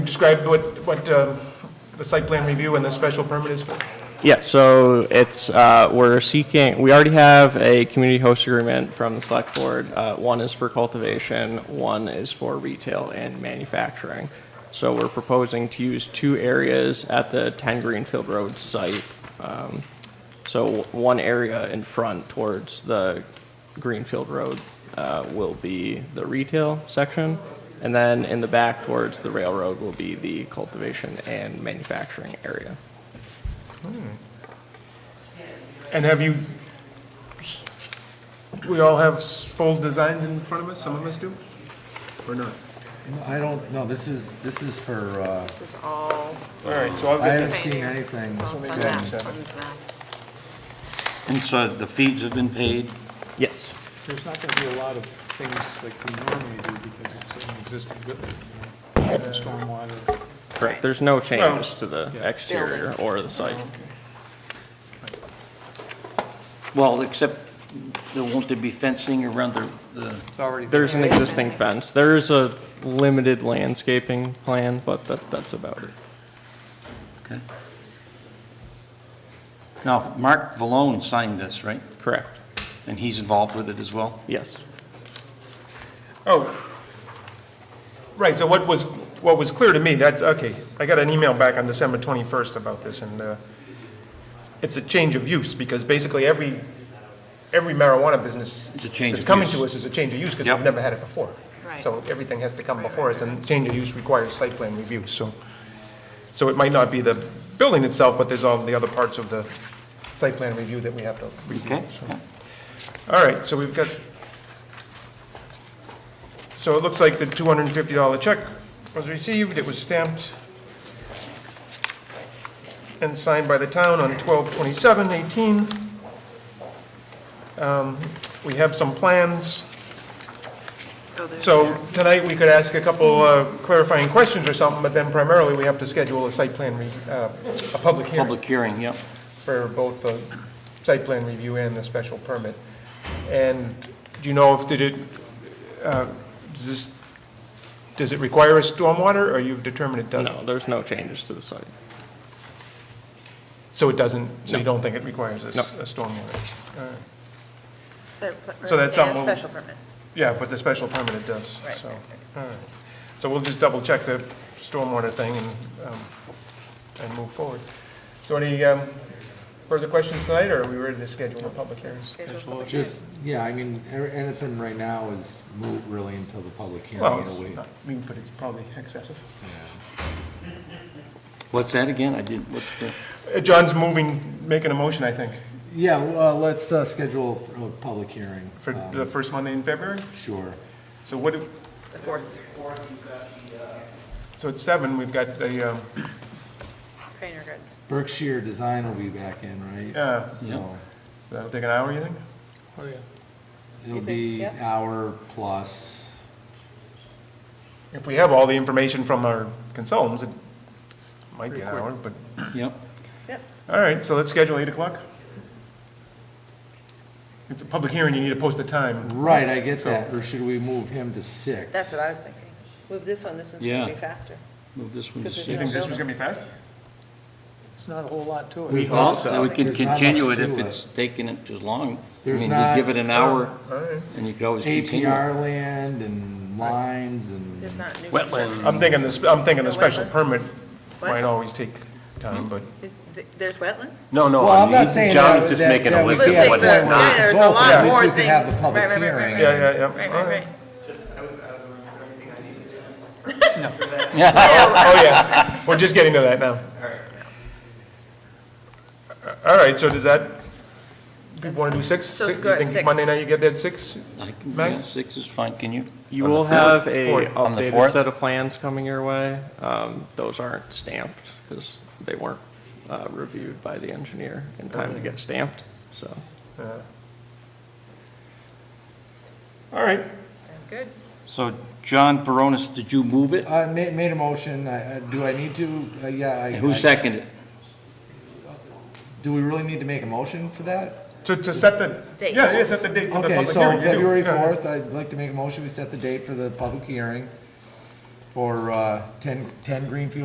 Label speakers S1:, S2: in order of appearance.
S1: Describe what, what um, the site plan review and the special permit is for.
S2: Yeah, so it's, uh, we're seeking, we already have a community host agreement from the select board. Uh, One is for cultivation, one is for retail and manufacturing. So we're proposing to use two areas at the 10 Greenfield Road site. Um, So w- one area in front towards the Greenfield Road uh, will be the retail section, and then in the back towards the railroad will be the cultivation and manufacturing area.
S1: And have you, we all have s- full designs in front of us, some of us do, or not?
S3: I don't, know. this is, this is for, uh,
S4: This is all.
S1: All right, so I'll
S3: I
S1: get
S3: haven't
S1: that.
S3: seen anything.
S4: It's all
S3: from-
S4: Sunmass, Sunmass.
S5: And so the fees have been paid?
S2: Yes.
S6: There's not going to be a lot of things like we normally do because it's an existing building, you know, stormwater.
S2: Correct, there's no changes to the exterior or the site.
S5: Well, except there won't there be fencing around the, the,
S6: It's already there.
S2: There's an existing fence. There is a limited landscaping plan, but that, that's about it.
S5: okay. Now, Mark Vallone signed this, right?
S2: Correct,
S5: And he's involved with it as well?
S2: yes.
S1: Oh, right, so what was, what was clear to me, that's, okay, I got an email back on December 21st about this, and uh, it's a change of use, because basically every, every marijuana business
S5: It's a change
S1: that's
S5: of
S1: coming
S5: use.
S1: to us is a change of use, because
S5: Yep.
S1: we've never had it before.
S4: Right.
S1: So everything has to come before us, and change of use requires site plan review, so, so it might not be the building itself, but there's all the other parts of the site plan review that we have to review.
S5: Okay.
S1: so. All right, so we've got, so it looks like the $250 check was received, it was stamped and signed by the town on 12/27/18. Um, We have some plans.
S4: Go there.
S1: So tonight, we could ask a couple uh, clarifying questions or something, but then primarily, we have to schedule a site plan, re- uh, a public hearing
S5: Public hearing, yep.
S1: for both the site plan review and the special permit. And do you know if, did it, uh, does this, does it require a stormwater, or you've determined it doesn't?
S2: No, there's no changes to the site.
S1: So it doesn't, so you
S2: No.
S1: don't think it requires a s-
S2: No.
S1: a stormwater? All right.
S4: So
S1: So that's
S4: and
S1: something-
S4: Special permit.
S1: Yeah, but the special permit it does,
S4: Right,
S1: so,
S4: right,
S1: all right. So we'll just double check the stormwater thing and, um, and move forward. So any, um, further questions tonight, or are we ready to schedule a public hearing?
S3: Just, yeah, I mean, a- anything right now is moot really until the public
S1: Well,
S3: hearing.
S1: it's
S3: you know, we-
S1: not, I mean, but it's probably excessive.
S5: What's that again? I didn't, what's the,
S1: Uh, John's moving, making a motion, I think,
S3: Yeah, uh, let's, uh, schedule a public hearing.
S1: for
S3: um,
S1: the first Monday in February.
S3: Sure.
S1: So what, do-
S4: The fourth
S1: so at seven, we've got the, um,
S4: Craner Gardens.
S3: Berkshire Design will be back in, right?
S1: Yeah.
S3: So,
S1: so that'll uh, take an hour, you think?
S6: Oh, yeah.
S3: it'll
S4: think-
S3: be
S4: yeah.
S3: hour plus.
S1: If we have all the information from our consultants, it might be an hour, but,
S5: yep.
S4: Yep.
S1: all right, so let's schedule eight o'clock. It's a public hearing, you need to post the time.
S3: Right, I get that, or should we move him to six?
S4: That's what I was thinking. Move this one, this one's gonna
S5: Yeah.
S4: be faster.
S5: Move this one to
S4: Because
S1: You
S5: six.
S1: think this was gonna be fast?
S6: There's not a whole lot to
S3: There's
S6: it.
S5: Well,
S3: not-
S5: then we can
S3: there's not much
S5: continue it
S3: to
S5: if it's taking it as long. I
S3: There's
S5: mean,
S3: not- um,
S5: you give it an hour
S1: All right.
S5: and you could always continue. it.
S3: APR land and lines and.
S4: There's not new. construction.
S5: Wetland.
S1: I'm thinking the, sp- I'm thinking the
S4: No, wait,
S1: special
S4: let's-
S1: permit
S4: What?
S1: might always take time, but,
S4: Is- th- There's wetlands?
S7: No, no,
S3: Well,
S7: I
S3: I'm not
S7: mean,
S3: saying
S7: John's
S3: that-
S7: just
S3: that-
S7: making
S3: that
S7: a
S3: we
S7: list of
S3: can't
S7: what
S4: Let's take
S7: it's
S4: the-
S7: not.
S4: yeah, There's a
S3: Both, at
S4: lot
S3: least
S4: more
S3: we
S4: things.
S3: could have a public
S4: Right, right, right, right,
S3: hearing.
S4: right.
S1: yeah, yeah, yeah.
S4: Right,
S1: all
S4: right, right.
S1: Oh, yeah, we're just getting to that now. All right, so does that, people want to do six?
S4: So
S1: Six-
S4: go at
S1: You think
S4: six.
S1: Monday night you get there at six?
S5: I can,
S1: Max?
S5: yeah, six is fine, can you?
S2: You
S5: On the
S2: will
S5: fourth?
S2: have a
S1: fourth.
S5: On the
S2: updated
S5: fourth?
S2: set of plans coming your way. Um, Those aren't stamped because they weren't uh, reviewed by the engineer in time to
S5: Oh.
S2: get stamped, so.
S1: All right,
S4: Good.
S5: So John Baronis, did you move it?
S3: I made, Uh, made a motion, I, I- do I need to, Uh, yeah, I.
S5: And who
S3: I-
S5: seconded it?
S3: Do we really need to make a motion for that?
S1: to, to set the,
S4: Date.
S1: yeah, yeah, set the date for the
S3: Okay,
S1: public
S3: so
S1: hearing. you do,
S3: February
S1: yeah.
S3: fourth, I'd like to make a motion, we set the date for the public hearing. for, uh, ten, ten Greenfield